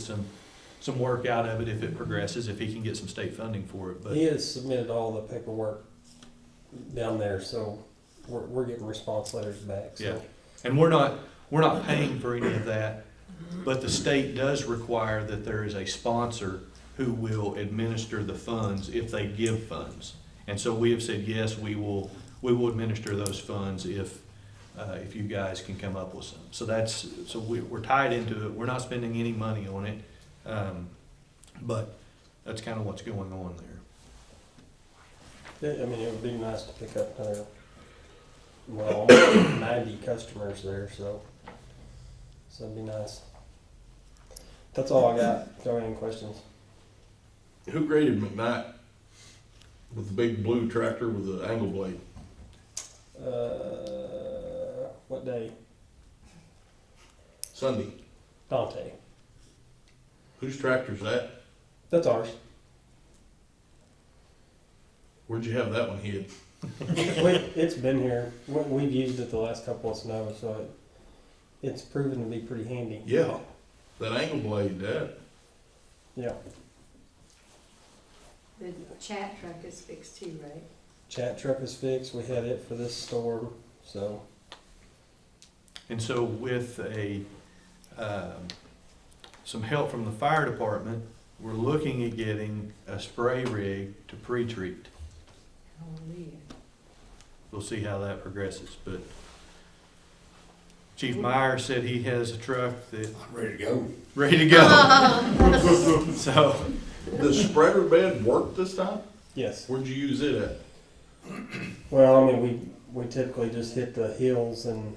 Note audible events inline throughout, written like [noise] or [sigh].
some, some work out of it if it progresses, if he can get some state funding for it, but. He has submitted all the paperwork down there, so we're, we're getting response letters back, Yeah. so. And we're not, we're not paying for any of that, but the state does require that there is a sponsor who will administer the funds if they give funds. And so we have said, yes, we will, we will administer those funds if, uh, if you guys can come up with some. So that's, so we, we're tied into it, we're not spending any money on it, um, but that's kind of what's going on there. Yeah, I mean, it would be nice to pick up another, [coughs] well, almost ninety customers there, so, so it'd be nice. That's all I got. Do you have any questions? Who graded McKnight with the big blue tractor with the angle blade? Uh, what day? Sunday. Dante. Whose tractor's that? That's ours. [laughs] Where'd you have that one hid? we, it's been here. We, we've used it the last couple of snows, so it, it's proven to be pretty handy. Yeah, that angle blade, that. Yeah. The chat truck is fixed too, right? Chat truck is fixed. We had it for this storm, so And so with a, um, some help from the fire department, we're looking at getting a spray rig to pre-treat. Hallelujah. We'll see how that progresses, but Chief Meyer said he has a truck that, I'm ready to go. ready to go. So, The spreader bed worked this time? yes. Where'd you use it at? Well, I mean, we we typically just hit the hills and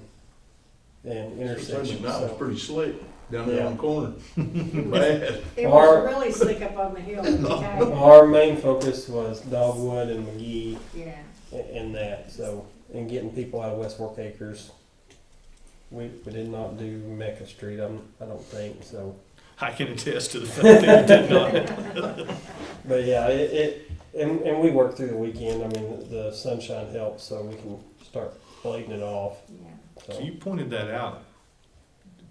and Sunday intersections. night was So. pretty slick, down there Yeah. on the corner. Bad. It Or- was really slick up on [laughs] the hill, at the time. Our main focus was Dogwood and McGee yeah. a- and that, so and getting people out of West Fork Acres. We, we did not do Mecca Street. I'm I don't think so. I can attest to the fact that it did not. But yeah, it, it and, and we work through the weekend. I mean, the sunshine helps, so we can start blading it off. Yeah. So So you pointed that out.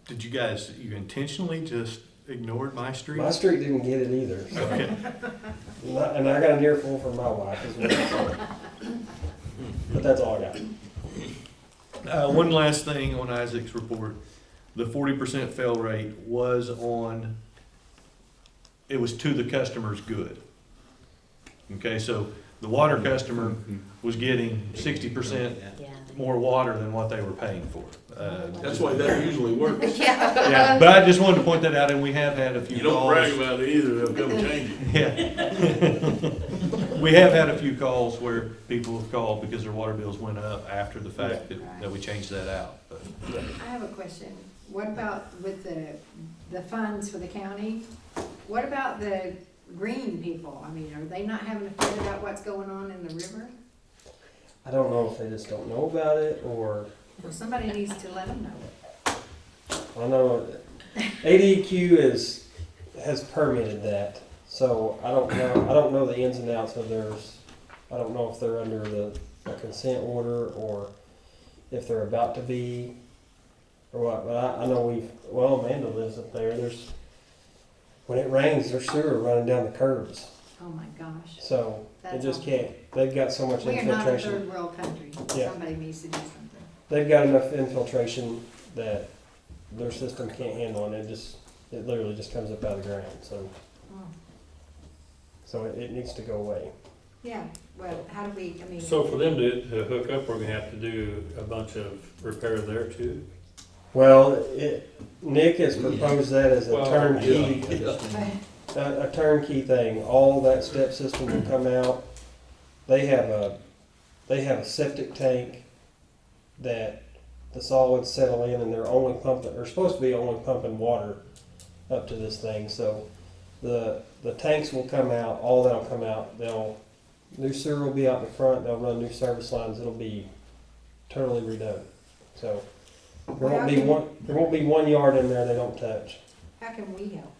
Did you guys, you intentionally just ignored my street? my street didn't get it either, so. Okay, and I- and I got an earful for my wife as well. So. But that's all I got. Uh, one last thing on Isaac's report, the forty percent fail rate was on, it was to the customer's good. Okay, so the water customer was getting sixty percent more water than what they were paying for. Uh, That's why that usually works. Yeah, but I just wanted to point that out, and we have had a few You calls. don't brag about it either, they'll come change it. Yeah. [laughs] We have had a few calls where people have called because their water bills went up after the fact that, that we changed that out, but. I have a question. What about with the, the funds for the county? What about the green people? I mean, are they not having to figure out what's going on in the river? I don't know if they just don't know about it or Well, somebody needs to let them know. I know ADQ is has permitted that, so I don't know. I don't know the ins and outs of theirs. I don't know if they're under the a consent order or if they're about to be or what. But I, I know we've well Amanda lives up there. There's when it rains, there's sewer running down the curbs, Oh, my gosh. so it That's just awful. can't. They've got so much We are not a infiltration. third world country. Yeah. Somebody needs to do something. They've got enough infiltration that their system can't handle it. It just, it literally just comes up out of the ground. So, Oh, so it, it needs to go away. Yeah, well, how do we, I mean. So for them to, to hook up, we're gonna have to do a bunch of repair there too. Well, it, Nick has proposed that as a Well, turnkey, Yeah. a, a turnkey thing. All that step system will come out. They have a, they have a septic tank that the solids settle in, and they're only pumping, they're supposed to be only pumping water up to this thing. So the the tanks will come out. All that'll come out. They'll new sewer will be out in front. They'll run new service lines. It'll be totally redone. So there won't be one there won't be one yard in there they don't touch. How can we help?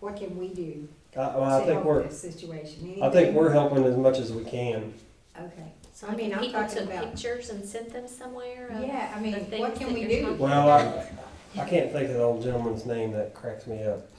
What can we do I, well, to I think help we're this situation? I think Anything? we're helping as much as we can. Okay, so I mean, I'm talking about- pictures and sent them somewhere. of- yeah, I mean, the what things can that we you're do? talking Well, I I can't think of the old gentleman's name that cracks me up.